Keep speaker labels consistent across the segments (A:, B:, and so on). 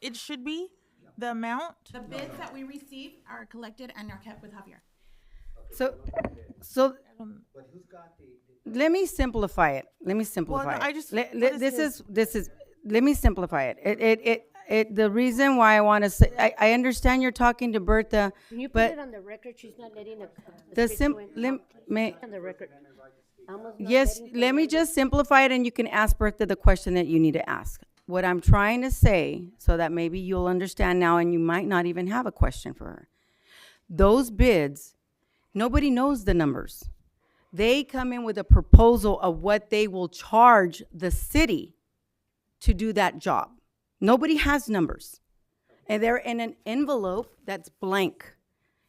A: it should be, the amount.
B: The bids that we receive are collected and are kept with Javier.
C: So, so let me simplify it. Let me simplify it.
A: I just-
C: Le- le-
A: honestly,
C: this is this is. Let me simplify it. It it it. it the reason why I want to say I, I understand you're talking to Bertha,
D: Can you put
C: but
D: it on the record? She's not letting the.
C: the
D: speak
C: sim
D: when-
C: lim, may,
D: On the record. Alma's not
C: Yes,
D: letting
C: let me just simplify it and you can ask Bertha the question that you need to ask. What I'm trying to say, so that maybe you'll understand now and you might not even have a question for her. Those bids, nobody knows the numbers. They come in with a proposal of what they will charge the city to do that job. Nobody has numbers. And they're in an envelope that's blank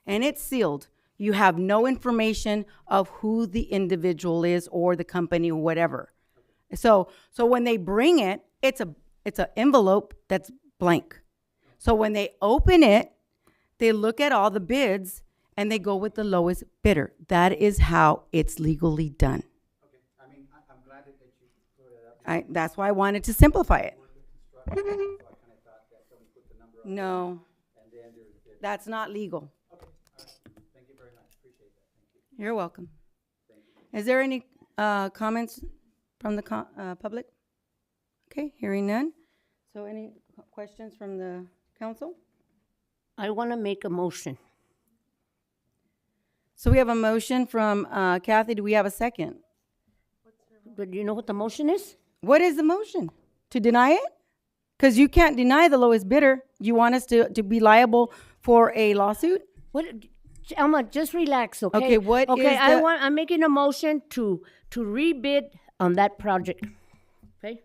C: and it's sealed. You have no information of who the individual is or the company or whatever. So so when they bring it, it's a it's an envelope that's blank. So when they open it, they look at all the bids and they go with the lowest bidder. That is how it's legally done. I, that's why I wanted to simplify it. No. That's not legal. You're welcome. Is there any uh, comments from the co- uh, public? Okay, hearing none. So any qu- questions from the council?
D: I want to make a motion.
C: So we have a motion from uh, Kathy. Do we have a second?
D: But you know what the motion is?
C: What is the motion? To deny it? Because you can't deny the lowest bidder. You want us to, to be liable for a lawsuit?
D: What, Alma, just relax, okay?
C: Okay, what
D: Okay,
C: is
D: I
C: the-
D: want, I'm making a motion to, to rebid on that project. Okay?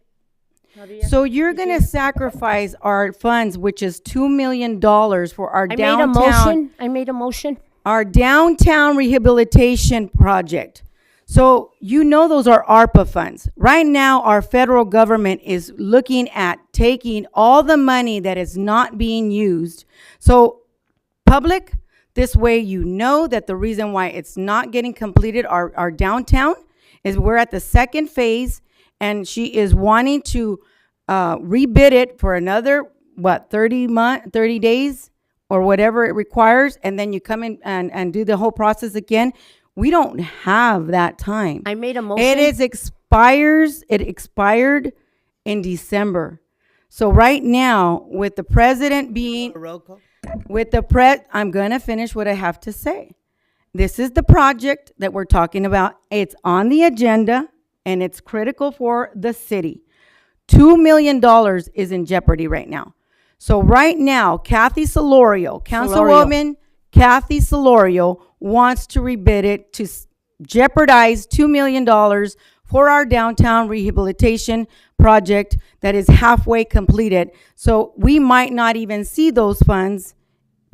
D: Claudia?
C: So you're gonna sacrifice our funds, which is two million dollars for our
D: I made a
C: downtown,
D: motion, I made a motion.
C: our downtown rehabilitation project. So you know those are ARPA funds. Right now, our federal government is looking at taking all the money that is not being used. So public. This way you know that the reason why it's not getting completed, our, our downtown, is we're at the second phase and she is wanting to uh, rebid it for another, what, thirty month, thirty days? Or whatever it requires, and then you come in and, and do the whole process again. We don't have that time.
D: I made a
C: It
D: motion.
C: is expires, it expired in December. So right now, with the president being, with the pre, I'm gonna finish what I have to say. This is the project that we're talking about. It's on the agenda and it's critical for the city. Two million dollars is in jeopardy right now. So right now, Kathy Solorio, Councilwoman Kathy Solorio wants to rebid it to s- jeopardize two million dollars for our downtown rehabilitation project that is halfway completed. So we might not even see those funds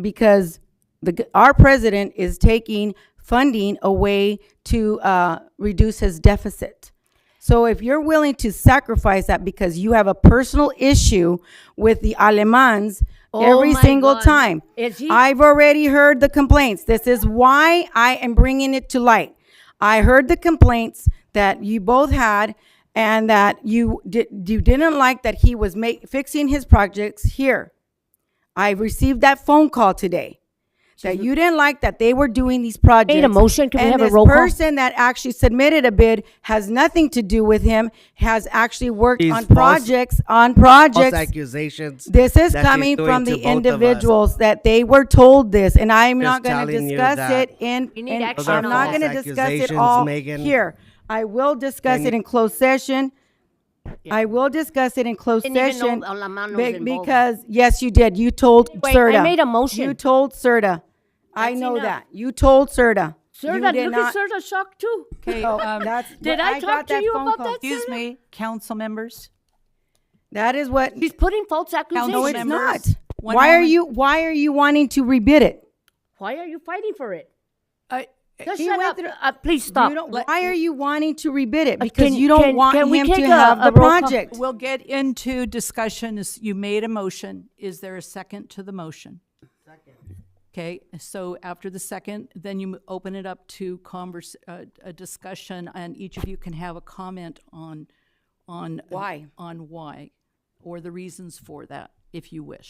C: because the, g- our president is taking funding away to uh, reduce his deficit. So if you're willing to sacrifice that because you have a personal issue with the Alemans every
D: Oh my
C: single
D: God.
C: time,
D: Is he-
C: I've already heard the complaints. This is why I am bringing it to light. I heard the complaints that you both had and that you did you didn't like that he was ma- fixing his projects here. I received that phone call today that you didn't like that they were doing these projects.
D: motion. Can we
C: and
D: have a
C: this
D: roll call?
C: person that actually submitted a bid has nothing to do with him. Has actually worked
E: These
C: on
E: false-
C: projects on
E: false
C: projects.
E: accusations.
C: This is
E: that she's
C: coming
E: doing
C: from
E: to
C: the
E: both of us.
C: individuals that they were told this, and I'm not going to
E: telling you
C: discuss
E: that.
C: it in.
D: You need
C: in-
D: action
C: I'm
D: on
C: not
D: that.
C: going to discuss it
E: Accusations,
C: all
E: Megan.
C: here. I will discuss it in closed session. I will discuss it in closed
D: Didn't even
C: session.
D: know Alamán was
C: be-
D: involved.
C: Because, yes, you did. You told
D: I
C: Serta.
D: made a motion.
C: You told Serta. I
D: That's
C: know
D: enough.
C: that. You told Serta. You
D: Sir, that-
C: did
D: look
C: not-
D: at Sir, shocked too.
A: Okay, um,
C: That's-
D: Did I
C: got
D: talk to
C: that
D: you
C: phone
D: about
C: call.
D: that?
A: Excuse me, council members.
C: That is what.
D: She's putting false accusations.
C: No, it's not.
A: members. One
C: Why are
A: moment.
C: you, why are you wanting to rebid it?
D: Why are you fighting for it?
A: I,
D: Just
C: He
D: shut
C: went
D: up.
C: through-
D: Uh, please stop.
C: You don't-
A: Let-
C: why are you wanting to rebid it?
D: Uh,
C: Because
D: can-
C: you don't
D: can-
C: want
D: can we
C: him
D: take
C: to
D: a-
C: have
D: a
C: the
D: roll call?
C: project.
A: we'll get into discussions. You made a motion. Is there a second to the motion? Okay, so after the second, then you m- open it up to converse, uh, a discussion, and each of you can have a comment on, on.
C: Why?
A: On why, or the reasons for that, if you wish.